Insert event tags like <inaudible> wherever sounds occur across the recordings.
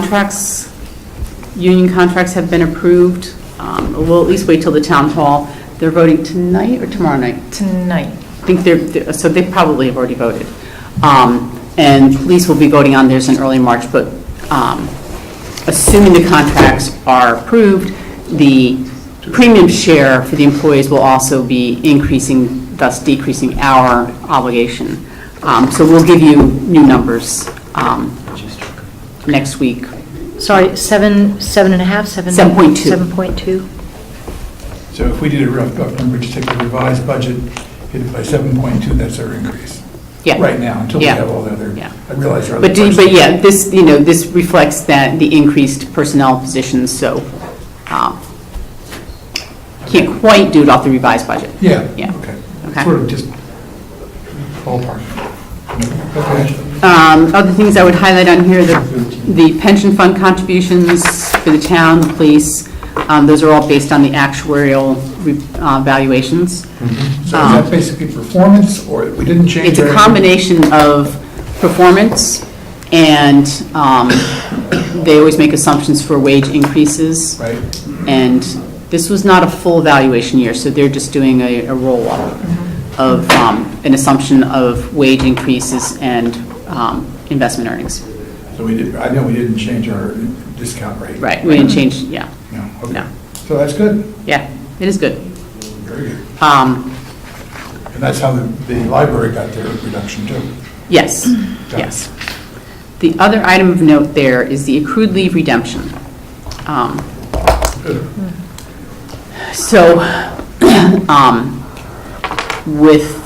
contracts, union contracts have been approved. Um, We'll at least wait till the town hall. They're voting tonight or tomorrow night? Tonight. I think they're- they're, so they probably have already voted. Um, And police will be voting on theirs in early March, but um, assuming the contracts are approved, the premium share for the employees will also be increasing, thus decreasing our obligation. Um, So we'll give you new numbers um, next week. Sorry, seven, seven and a half, seven? 7.2. 7.2. So if we did a rough, rough number, just take the revised budget, hit it by 7.2, that's our increase. Yeah. Right now, until we Yeah. have all the other, Yeah. I realize there are other But, do- questions. but yeah, this, you know, this reflects that, the increased personnel positions, so um, can't quite do it off the revised budget. Yeah, Yeah. okay. Okay. Sort of just ballpark. Okay. Um, Other things I would highlight on here, the the pension fund contributions for the town, the police, um, those are all based on the actuarial re- uh, valuations. Mm-hmm. Um, So is that basically performance, or we didn't change? It's a our- combination of performance, and um, they always make assumptions for wage increases. Right, And this was not a full valuation year, so they're just doing a, a roll-up of um, an assumption of wage increases and um, investment earnings. so we did, I know we didn't change our discount rate. Right, we didn't change, yeah, No, okay. No. So that's good, yeah, it is good. very good. Um, And that's how the, the library got their reduction too. Yes, Got it. yes. The other item of note there is the accrued leave redemption. Um, So, <clears throat> um, with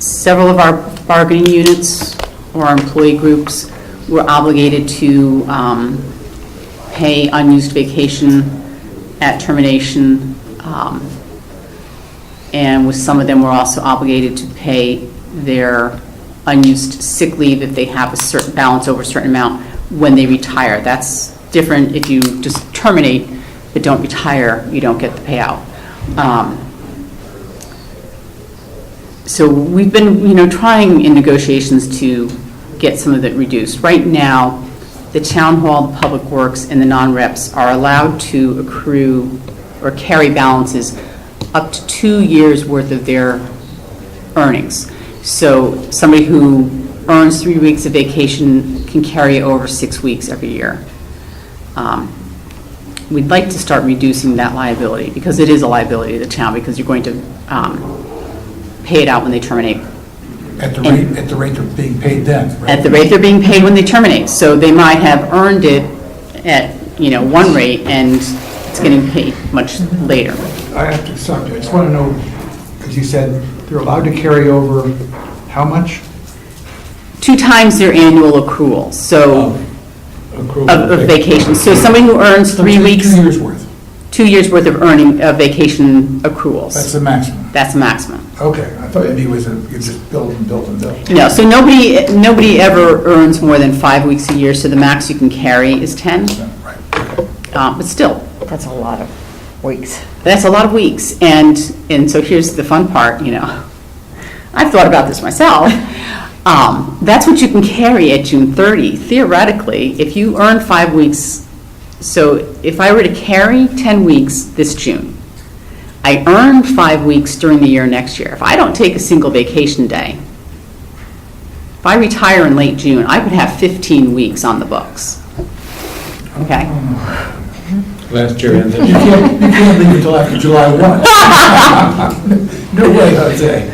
several of our bargaining units or our employee groups, we're obligated to um, pay unused vacation at termination. um, And with some of them, we're also obligated to pay their unused sick leave if they have a certain balance over a certain amount when they retire. That's different if you just terminate but don't retire, you don't get the payout. Um, so we've been, you know, trying in negotiations to get some of it reduced. Right now, the town hall, the public works, and the non-reps are allowed to accrue or carry balances up to two years' worth of their earnings. So somebody who earns three weeks of vacation can carry over six weeks every year. Um, We'd like to start reducing that liability, because it is a liability to the town, because you're going to um, pay it out when they terminate, At the rate, at the rate they're being paid then, right? at the rate they're being paid when they terminate. So they might have earned it at, you know, one rate, and it's getting paid much later. I have to stop you. I just want to know, because you said they're allowed to carry over how much? Two times their annual accrual, so, Oh, Accrual Um, of of vacation. So somebody who earns three Two- weeks, Two years' worth. two years' worth of earning, of vacation That's accruals. the maximum. That's the maximum. Okay, I thought it was, a- you just build and build and build. No, so nobody, nobody ever earns more than five weeks a year, so the max you can carry is 10. Right. Uh, But still, That's a lot of weeks. that's a lot of weeks. And, and so here's the fun part, you know. I've thought about this myself. Um, That's what you can carry at June 30 theoretically, if you earn five weeks. So if I were to carry 10 weeks this June, I earn five weeks during the year next year. If I don't take a single vacation day, If I retire in late June, I could have 15 weeks on the books. Okay? Oh, Last year, and You can't, you can't leave until after July 1. <laughs> No way, Jose.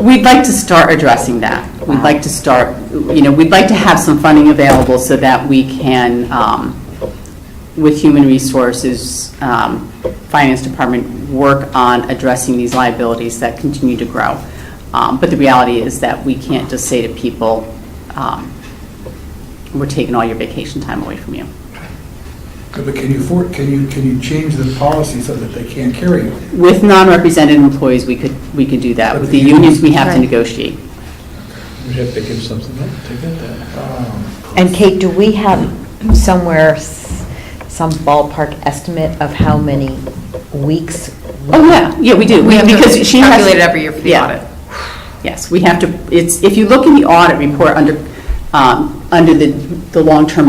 We'd like to start addressing that. We'd like to start, you know, we'd like to have some funding available so that we can, um, with Human Resources, um, Finance Department, work on addressing these liabilities that continue to grow. Um, But the reality is that we can't just say to people, um, we're taking all your vacation time away from you. But can you, for- can you, can you change the policy so that they can't carry it? With non-represented employees, we could, we could do that. With the unions, we have to Right. negotiate. we'd have to give something up to get that. Um, And Kate, do we have somewhere, s- some ballpark estimate of how many weeks? Oh, yeah, yeah, we do, We We- have to because she has... calculate it every year for the Yeah. audit. Yes, we have to, it's, if you look in the audit report under, um, under the, the long-term